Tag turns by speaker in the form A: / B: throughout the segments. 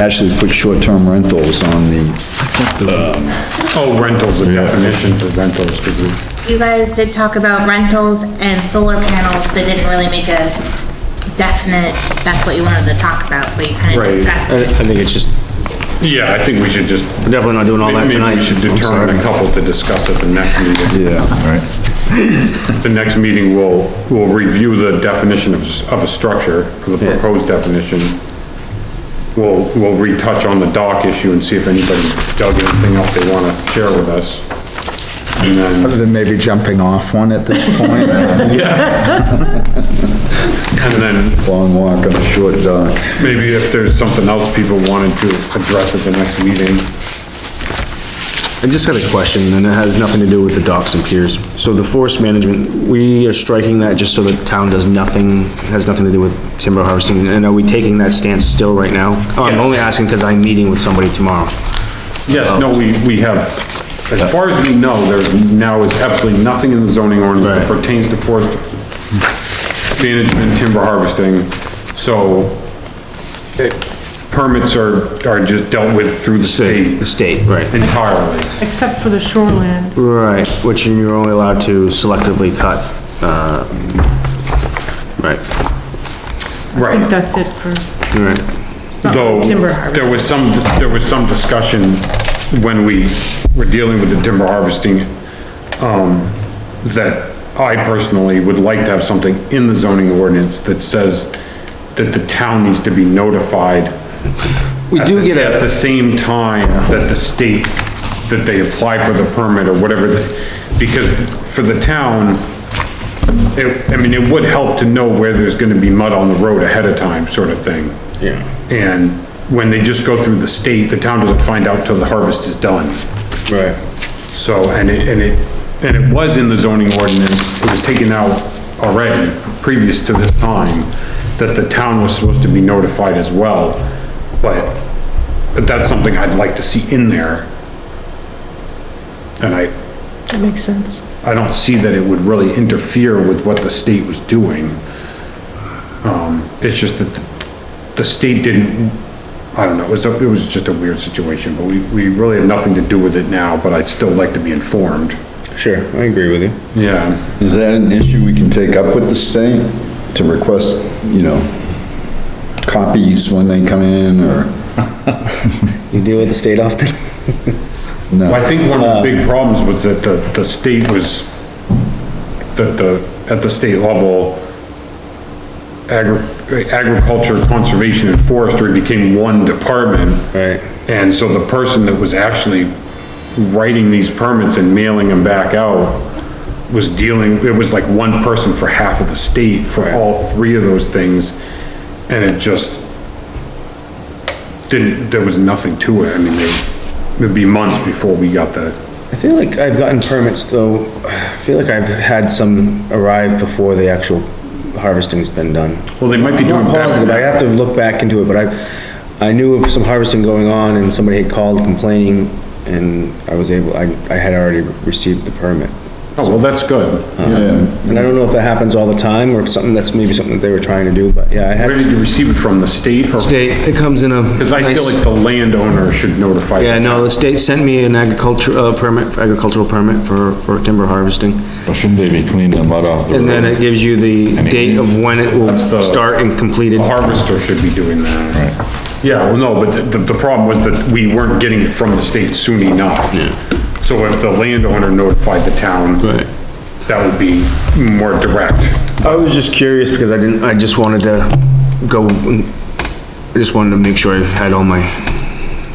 A: actually put short-term rentals on the,
B: Oh, rentals, the definition for rentals, because we,
C: You guys did talk about rentals and solar panels, but didn't really make a definite, that's what you wanted to talk about, but you kind of
B: Right.
C: discussed
D: I,
C: it.
D: I think it's just,
B: yeah, I think we should just,
D: we're definitely not doing all that
B: maybe
D: tonight.
B: we should
D: I'm sorry.
B: determine a couple to discuss at the next meeting.
A: yeah,
B: The next meeting, we'll, we'll review the definition of, s- of a structure, the proposed definition. We'll, we'll retouch on the dock issue and see if anybody dug anything up they wanna share with us. And then,
A: other than maybe jumping off one at this point,
B: and then
A: long walk on a short dock.
B: maybe if there's something else people wanted to address at the next meeting.
D: I just had a question, and it has nothing to do with the docks and piers. So the forest management, we are striking that just so the town does nothing, has nothing to do with timber harvesting, and are we taking that stance still right now? Oh, I'm
B: Yes.
D: only asking because I'm meeting with somebody tomorrow.
B: Yes, no, we, we have, as far as we know, there's now is absolutely nothing in the zoning ordinance that
D: Right.
B: pertains to forest management, timber harvesting, so it- permits are, are just dealt with through the state
D: The state, right.
B: entirely.
E: Except for the shoreland.
D: Right, which you're only allowed to selectively cut, uh, right,
E: I think
B: Right,
E: that's it for
D: right.
B: though,
E: timber harvest.
B: there was some, there was some discussion when we were dealing with the timber harvesting, um, that I personally would like to have something in the zoning ordinance that says that the town needs to be notified
D: We do get
B: at
D: a,
B: the same time that the state, that they apply for the permit or whatever, the- because for the town, it, I mean, it would help to know where there's gonna be mud on the road ahead of time, sort of thing.
D: Yeah.
B: And when they just go through the state, the town doesn't find out till the harvest is done.
D: right,
B: So, and it, and it, and it was in the zoning ordinance, it was taken out already, previous to this time, that the town was supposed to be notified as well, but, but that's something I'd like to see in there. And I,
E: That makes sense.
B: I don't see that it would really interfere with what the state was doing. Um, it's just that the- the state didn't, I don't know, it was, a- it was just a weird situation, but we, we really have nothing to do with it now, but I'd still like to be informed.
D: sure, I agree with you.
B: Yeah,
A: Is that an issue we can take up with the state to request, you know, copies when they come in or?
D: You deal with the state often?
A: No.
B: Well, I think one of the big problems was that the, the state was, that the, at the state level, agri- agriculture, conservation and forestry became one department.
D: Right.
B: And so the person that was actually writing these permits and mailing them back out was dealing, it was like one person for half of the state for all three of those things. And it just, didn't, there was nothing to it, I mean, they- it'd be months before we got the,
D: I feel like I've gotten permits though, I feel like I've had some arrive before the actual harvesting's been done.
B: well, they might be doing
D: I'm positive, I
B: better.
D: have to look back into it, but I, I knew of some harvesting going on and somebody had called complaining and I was able, I, I had already received the permit.
B: Oh, well, that's good.
A: Yeah,
D: And I don't know if that happens all the time or if something, that's maybe something that they were trying to do, but yeah, I
B: Where
D: had.
B: did you receive it from, the state or?
D: State, it comes in a.
B: Because I feel like the landowner should notify.
D: Yeah, no, the state sent me an agriculture, uh, permit, agricultural permit for, for timber harvesting.
F: Well, Shouldn't they be cleaning the mud off the road?
D: And then it gives you the
F: And it
D: date of when it will
B: That's the-
D: start and completed.
B: The harvester should be doing that. Right. Yeah, well, no, but the, the problem was that we weren't getting it from the state soon enough. Yeah. So if the landowner notified the town.
D: Right.
B: That would be more direct.
D: I was just curious because I didn't, I just wanted to go, and- I just wanted to make sure I had all my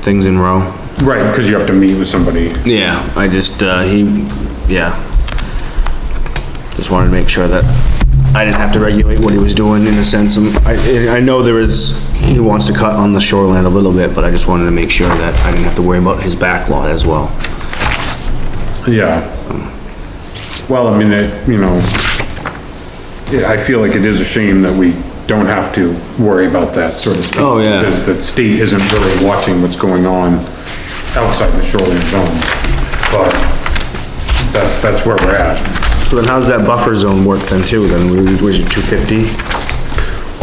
D: things in row.
B: Right, because you have to meet with somebody.
D: Yeah, I just, uh, he, yeah. Just wanted to make sure that I didn't have to regulate what he was doing in a sense. and I, I know there is, he wants to cut on the shoreline a little bit, but I just wanted to make sure that I didn't have to worry about his back lot as well.
B: Yeah. Well, I mean, it, you know, yeah, I feel like it is a shame that we don't have to worry about that sort of stuff.
D: Oh, yeah.
B: Because the state isn't really watching what's going on outside the shoreline zone. But that's, that's where we're at.
D: So then how's that buffer zone work then too? Then we, was it two fifty?